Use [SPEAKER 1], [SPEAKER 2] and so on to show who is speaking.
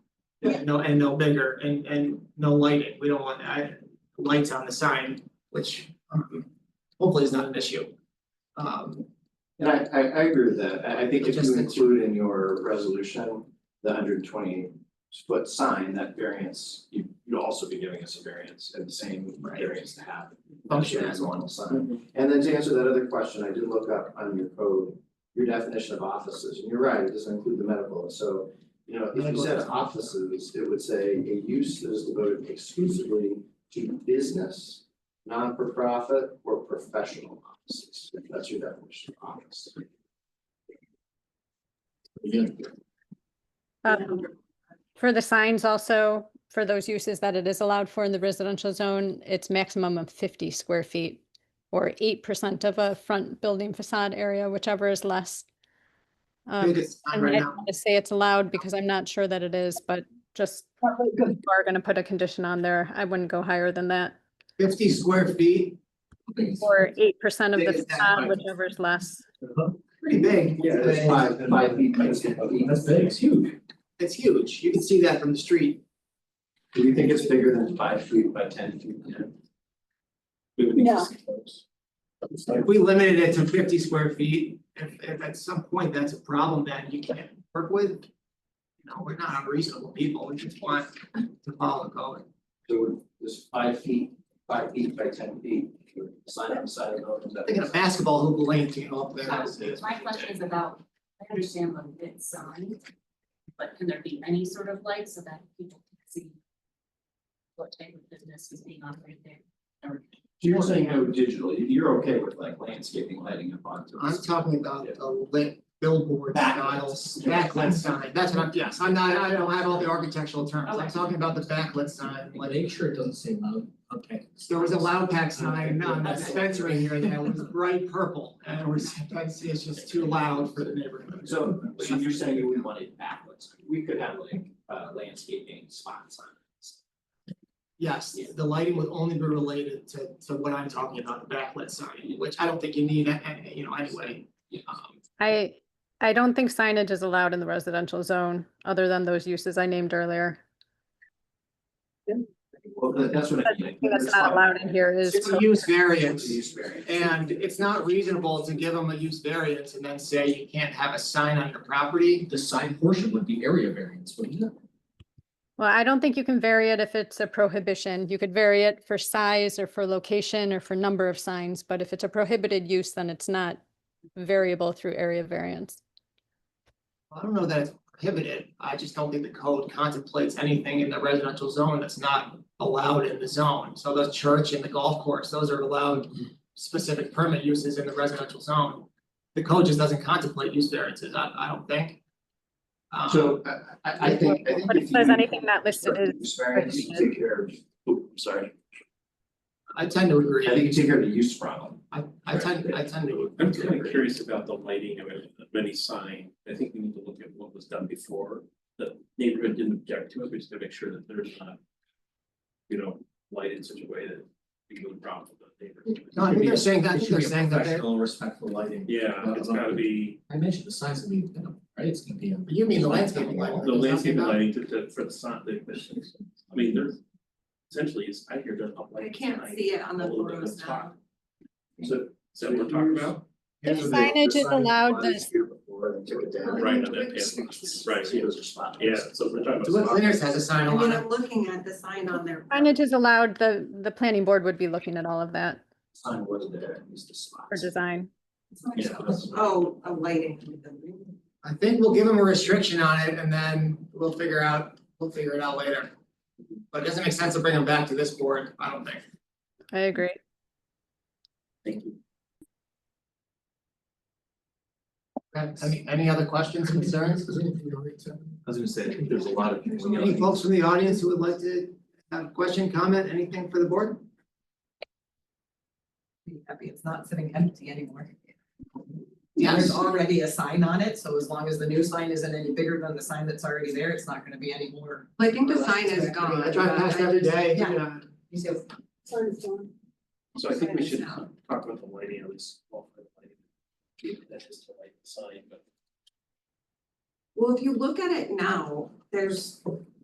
[SPEAKER 1] and no, and no bigger, and, and no lighting, we don't want, I, lights on the sign, which, um, hopefully is not an issue. Um,
[SPEAKER 2] And I I I agree with that, I I think if you
[SPEAKER 1] Logistics.
[SPEAKER 2] include in your resolution the hundred twenty foot sign, that variance, you you'd also be giving us a variance and the same
[SPEAKER 1] Right.
[SPEAKER 2] variance to have.
[SPEAKER 1] Function
[SPEAKER 2] as
[SPEAKER 1] as
[SPEAKER 2] one sign, and then to answer that other question, I did look up on your code, your definition of offices, and you're right, it doesn't include the medical, so. You know, if you
[SPEAKER 1] Medical
[SPEAKER 2] said
[SPEAKER 1] doesn't.
[SPEAKER 2] offices, it would say a use that is devoted exclusively to business, non-for-profit or professional offices, if that's your definition of office. Again,
[SPEAKER 3] Um, For the signs also, for those uses that it is allowed for in the residential zone, it's maximum of fifty square feet or eight percent of a front building facade area, whichever is less.
[SPEAKER 1] I think
[SPEAKER 3] Um,
[SPEAKER 1] it's on
[SPEAKER 3] and
[SPEAKER 1] right
[SPEAKER 3] I
[SPEAKER 1] now.
[SPEAKER 3] don't wanna say it's allowed because I'm not sure that it is, but just if you are gonna put a condition on there, I wouldn't go higher than that.
[SPEAKER 1] Fifty square feet,
[SPEAKER 3] Or eight percent of
[SPEAKER 1] Big
[SPEAKER 3] the
[SPEAKER 1] as that
[SPEAKER 3] facade,
[SPEAKER 1] might-
[SPEAKER 3] whichever is less.
[SPEAKER 1] pretty big.
[SPEAKER 2] Yeah, it's five, five feet, by ten feet.
[SPEAKER 4] That's big, it's huge.
[SPEAKER 1] It's huge, you can see that from the street,
[SPEAKER 2] Do you think it's bigger than five feet by ten feet?
[SPEAKER 3] No.
[SPEAKER 4] It's like,
[SPEAKER 1] if we limited it to fifty square feet, if, if at some point that's a problem that you can't work with. You know, we're not unreasonable people, we just want to follow the code.
[SPEAKER 2] So this five feet, five feet by ten feet, sign on the side of the building. that-
[SPEAKER 1] I'm Thinking a basketball hoop lane came up there. that's it.
[SPEAKER 5] My question is about, I understand the bit sign, but can there be any sort of light so that people can see what type of business is being operated there? Or
[SPEAKER 2] You're saying no digital, You- you're okay with like landscaping lighting up onto
[SPEAKER 1] I'm
[SPEAKER 2] this?
[SPEAKER 1] talking about the lit billboard
[SPEAKER 2] Backlit.
[SPEAKER 1] styles, backlit sign, that's what I'm, yes, I'm not, I don't have all the architectural terms, I'm
[SPEAKER 5] Okay.
[SPEAKER 1] talking about the backlit sign, like.
[SPEAKER 4] Make sure it doesn't say loud, okay.
[SPEAKER 1] There was a loud pack sign on the
[SPEAKER 4] Okay.
[SPEAKER 1] dispensary here that was bright purple, and it was, that's, it's just too loud for the neighborhood.
[SPEAKER 2] So, so you're saying you wouldn't want it backwards, we could have like uh landscaping spots on it.
[SPEAKER 1] Yes, the lighting would only be related to, to what I'm talking about, the backlit sign, which I don't think you need, uh, uh, you know, anyway.
[SPEAKER 2] Yeah.
[SPEAKER 1] Um,
[SPEAKER 3] I, I don't think signage is allowed in the residential zone, other than those uses I named earlier.
[SPEAKER 2] Well, that- that's what I mean.
[SPEAKER 3] That's not allowed in here is.
[SPEAKER 1] It's a use
[SPEAKER 2] It's
[SPEAKER 1] variance,
[SPEAKER 2] a use variance.
[SPEAKER 1] and it's not reasonable to give them a use variance and then say you can't have a sign on your property.
[SPEAKER 4] The sign portion would be area variance, wouldn't it?
[SPEAKER 3] Well, I don't think you can vary it if it's a prohibition. You could vary it for size or for location or for number of signs, but if it's a prohibited use, then it's not variable through area variance.
[SPEAKER 1] I don't know that it's prohibited, I just don't think the code contemplates anything in the residential zone that's not allowed in the zone. So the church and the golf course, those are allowed specific permit uses in the residential zone. The code just doesn't contemplate use variances, I I don't think. Um,
[SPEAKER 2] So I I I think, I think
[SPEAKER 3] But
[SPEAKER 2] if
[SPEAKER 3] it says
[SPEAKER 2] you-
[SPEAKER 3] anything not listed is
[SPEAKER 2] Use variance, you take care of, oh, sorry,
[SPEAKER 1] I tend to
[SPEAKER 2] I
[SPEAKER 1] agree,
[SPEAKER 2] think you take care of the use problem.
[SPEAKER 1] I I tend, I tend to
[SPEAKER 6] I'm kind of
[SPEAKER 1] agree.
[SPEAKER 6] curious about the lighting of a of any sign. I think we need to look at what was done before. The neighborhood didn't object to it, we just gotta make sure that there's not. You know, light in such a way that we can problem with the neighborhood.
[SPEAKER 1] No, I think they're saying that, I
[SPEAKER 4] It
[SPEAKER 1] think
[SPEAKER 4] should
[SPEAKER 1] they're
[SPEAKER 4] be a
[SPEAKER 1] saying that they're,
[SPEAKER 4] professional, respectful lighting.
[SPEAKER 6] Yeah, it's gotta be
[SPEAKER 4] I mentioned the size of the, right, it's gonna be a.
[SPEAKER 1] you mean the landscaping lighting.
[SPEAKER 6] the landscape lighting to to for the sign, the the- I mean, there's. Essentially, it's, I hear there's up
[SPEAKER 5] I
[SPEAKER 6] lighting
[SPEAKER 5] can't see it on the
[SPEAKER 6] A little bit of
[SPEAKER 5] photos now.
[SPEAKER 6] top. So, is that what we're talking about?
[SPEAKER 3] If signage is allowed,
[SPEAKER 2] Here's what they- the sign was here before and took it down.
[SPEAKER 6] Right, and then- yeah, right.
[SPEAKER 2] See, those are spots.
[SPEAKER 6] Yeah, so if we're talking about.
[SPEAKER 1] Duluth
[SPEAKER 6] spots-
[SPEAKER 1] Cleaners has a sign
[SPEAKER 7] I
[SPEAKER 1] on
[SPEAKER 7] mean,
[SPEAKER 1] it,
[SPEAKER 7] I'm looking at the sign on there.
[SPEAKER 3] signage is allowed, the, the planning board would be looking at all of that
[SPEAKER 2] Sign was there, at least the spots.
[SPEAKER 3] for design.
[SPEAKER 2] Yeah, that's-
[SPEAKER 7] Oh, a lighting. in the building.
[SPEAKER 1] I think we'll give them a restriction on it and then we'll figure out, we'll figure it out later. But it doesn't make sense to bring them back to this board, I don't think.
[SPEAKER 3] I agree.
[SPEAKER 1] Okay, Any, any other questions, concerns?
[SPEAKER 4] I was gonna say, I think there's a lot of. things.
[SPEAKER 1] Any folks from the audience who would like to have a question, comment, anything for the board?
[SPEAKER 8] be happy it's not sitting empty anymore.
[SPEAKER 1] Yes.
[SPEAKER 8] There's already a sign on it, so as long as the new sign isn't any bigger than the sign that's already there, it's not gonna be any more.
[SPEAKER 7] Well, I think the sign is gone.
[SPEAKER 1] I drive past every day, you
[SPEAKER 8] Yeah.
[SPEAKER 1] know,
[SPEAKER 8] You say,
[SPEAKER 6] So I think we
[SPEAKER 7] Sign
[SPEAKER 6] should
[SPEAKER 7] is out.
[SPEAKER 6] talk about the lighting, at least. well, for the lighting. Yeah, That's just to light the sign, but.
[SPEAKER 7] Well, if you look at it now, there's